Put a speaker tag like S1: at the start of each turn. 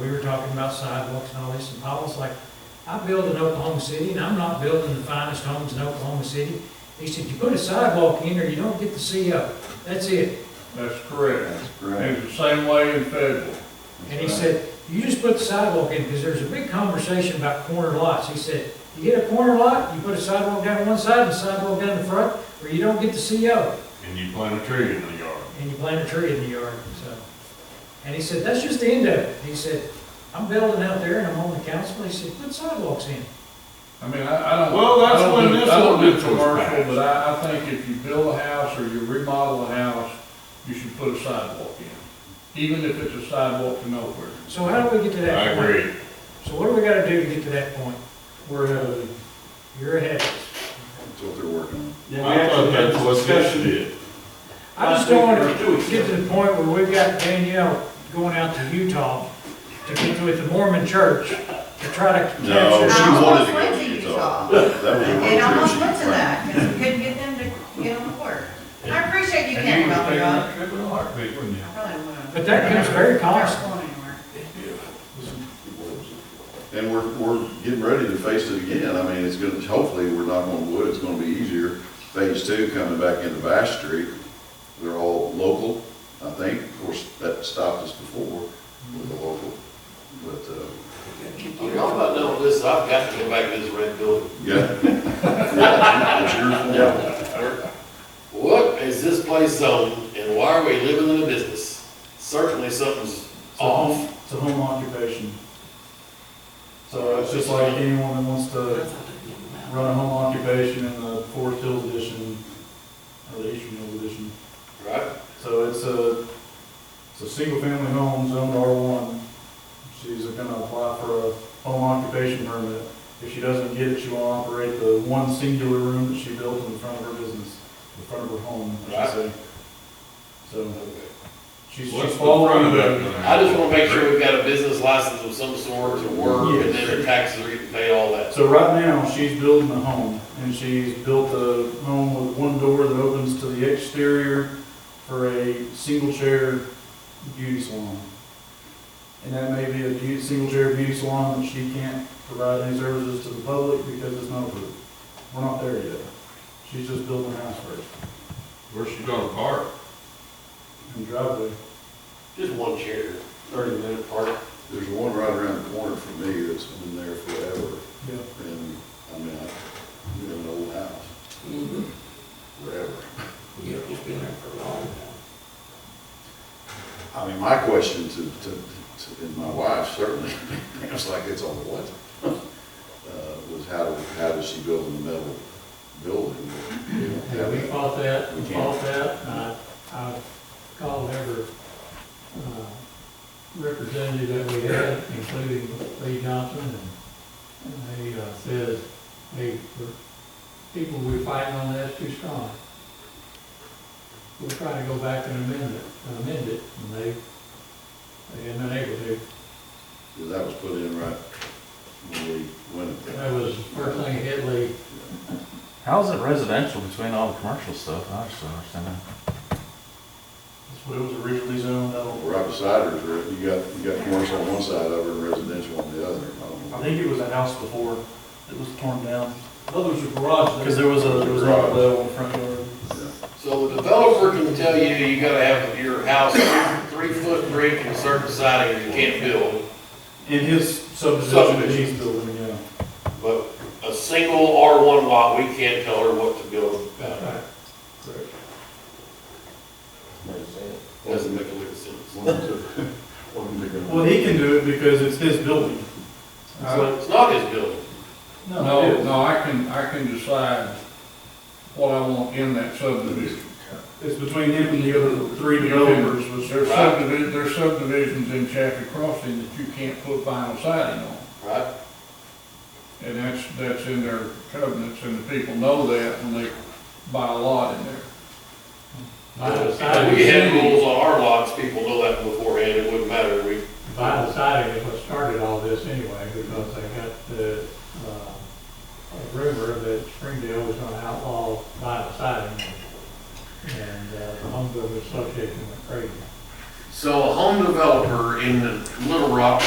S1: We were talking about sidewalks and all this, and Paul was like, I build in Oklahoma City, and I'm not building the finest homes in Oklahoma City. He said, you put a sidewalk in there, you don't get to see up, that's it.
S2: That's correct.
S3: That's correct.
S2: It's the same way in federal.
S1: And he said, you just put the sidewalk in, because there's a big conversation about corner lots. He said, you get a corner lot, you put a sidewalk down one side and a sidewalk down the front, or you don't get to see up,
S4: and you plant a tree in the yard.
S1: and you plant a tree in the yard, so. And he said, that's just the end of it. He said, I'm building out there and I'm on the council, he said, put sidewalks in.
S2: I mean, I, I don't.
S4: Well, that's
S2: I don't
S4: when
S2: do-
S4: this
S2: I don't do
S4: ordinance was
S2: commercial,
S4: passed.
S2: but I, I think if you build a house or you remodel a house, you should put a sidewalk in, even if it's a sidewalk to nowhere.
S1: So how do we get to
S4: I
S1: that point?
S4: agree.
S1: So what do we gotta do to get to that point? uh,
S2: We're having.
S1: You're ahead of us.
S3: That's what they're working on.
S5: Then we
S4: I thought
S5: actually had
S4: that's
S5: a
S4: what this
S5: discussion.
S4: did.
S1: I just don't wanna get to the point where we've got Danielle going out to Utah to get with the Mormon church to try to
S3: No,
S1: capture.
S3: she
S6: I
S3: wanted to
S6: almost
S3: go
S6: went
S3: to
S6: to
S3: Utah.
S6: Utah.
S3: That was her
S6: And I almost
S3: decision.
S6: went to that, because we couldn't get them to get on the board. I appreciate you
S4: And you
S6: can't
S4: would have
S6: help me,
S4: taken
S6: Rob.
S4: that trip in a heartbeat, wouldn't you?
S6: I probably wouldn't.
S1: But that comes very costly.
S6: Not going anywhere.
S3: And we're, we're getting ready to face it again. I mean, it's gonna, hopefully, we're not gonna wood, it's gonna be easier. Phase two coming back into Bass Street, they're all local, I think. Of course, that stopped us before with the local, but, uh,
S5: Y'all might know this, I've got to go back to this red building.
S3: yeah. Yeah, It's your fault.
S5: What is this place zoned and why are we living in a business? Certainly something's
S7: It's a
S5: off.
S7: home- It's a home occupation. So it's just like anyone that wants to run a home occupation in the Forest Hills edition, or the Eastern Hills edition.
S5: Right,
S7: So it's a, it's a single-family home zoned R1. She's gonna apply for a home occupation permit. If she doesn't get it, she will operate the one singular room that she built in front of her business, in front of her home, I should say. So
S4: What's
S7: she's she's
S4: the front
S7: following
S4: of
S7: the
S4: that?
S5: I just wanna make sure we've got a business license of some sort to work and then their taxes are getting paid, all that.
S7: So right now, she's building a home, and she's built a home with one door that opens to the exterior for a single chair beauty salon. And that may be a beauty, single chair beauty salon that she can't provide any services to the public because it's not approved. We're not there yet. She's just building a house first,
S4: Where's she gonna park?
S7: and driveway.
S5: Just one chair, thirty minute apart.
S3: There's one right around the corner from me that's been there forever.
S7: Yeah.
S3: And, I mean, I, we have an old house. Forever. I mean, my question to, to, to, and my wife certainly, it's like, it's on what? Uh, was how, do- how does she build in the metal building? We don't have
S8: We
S3: that.
S8: fought that, we
S3: We can't.
S8: fought that, and I, I called every, uh, representative that we had, including Lee Johnson, and, and they, uh, said, hey, the people we fighting on that's too strong. We'll try to go back and amend it, amend it, and they, they had not able to,
S3: 'Cause That was put in right when we went. up there.
S8: that was the first thing that hit Lee.
S9: How's it residential between all the commercial stuff? I just don't understand that.
S7: That's what it was originally zoned out.
S3: Right beside her, is re- you got, you got commercial on one side of her and residential on the other. Um, I
S7: I
S3: don't know.
S7: think it was a house before that was torn down,
S2: Others are garage.
S7: because there was a, there was an outlet on the front yard.
S5: So the developer can tell you, you gotta have your house three foot brick and certain siding, you can't build.
S7: In his subdivision that
S5: Subdivision.
S7: he's building, yeah.
S5: But a single R1 lot, we can't tell her what to build. uh, Doesn't make a lick of sense.
S3: One of the- one of the-
S7: Well, he can do it because it's his building. It's
S8: Uh,
S7: like-
S5: It's not his building.
S2: No, no, I can, I can decide what I want in that subdivision.
S7: It's between him and the other three developers, which
S2: There's subdivisions, there's subdivisions in Chaffey Crossing that you can't put vinyl siding on.
S5: Right.
S2: And that's, that's in their covenants, and the people know that when they buy a lot in there.
S8: By the
S5: If
S8: side,
S5: we had rules on our lots, people know that beforehand, it wouldn't matter, we,
S8: by the side is what started all this anyway, because they got the, uh, a rumor that Springdale was gonna outlaw by the side. And, uh, the Home Builders Association went crazy.
S5: so a home developer in the Little Rock,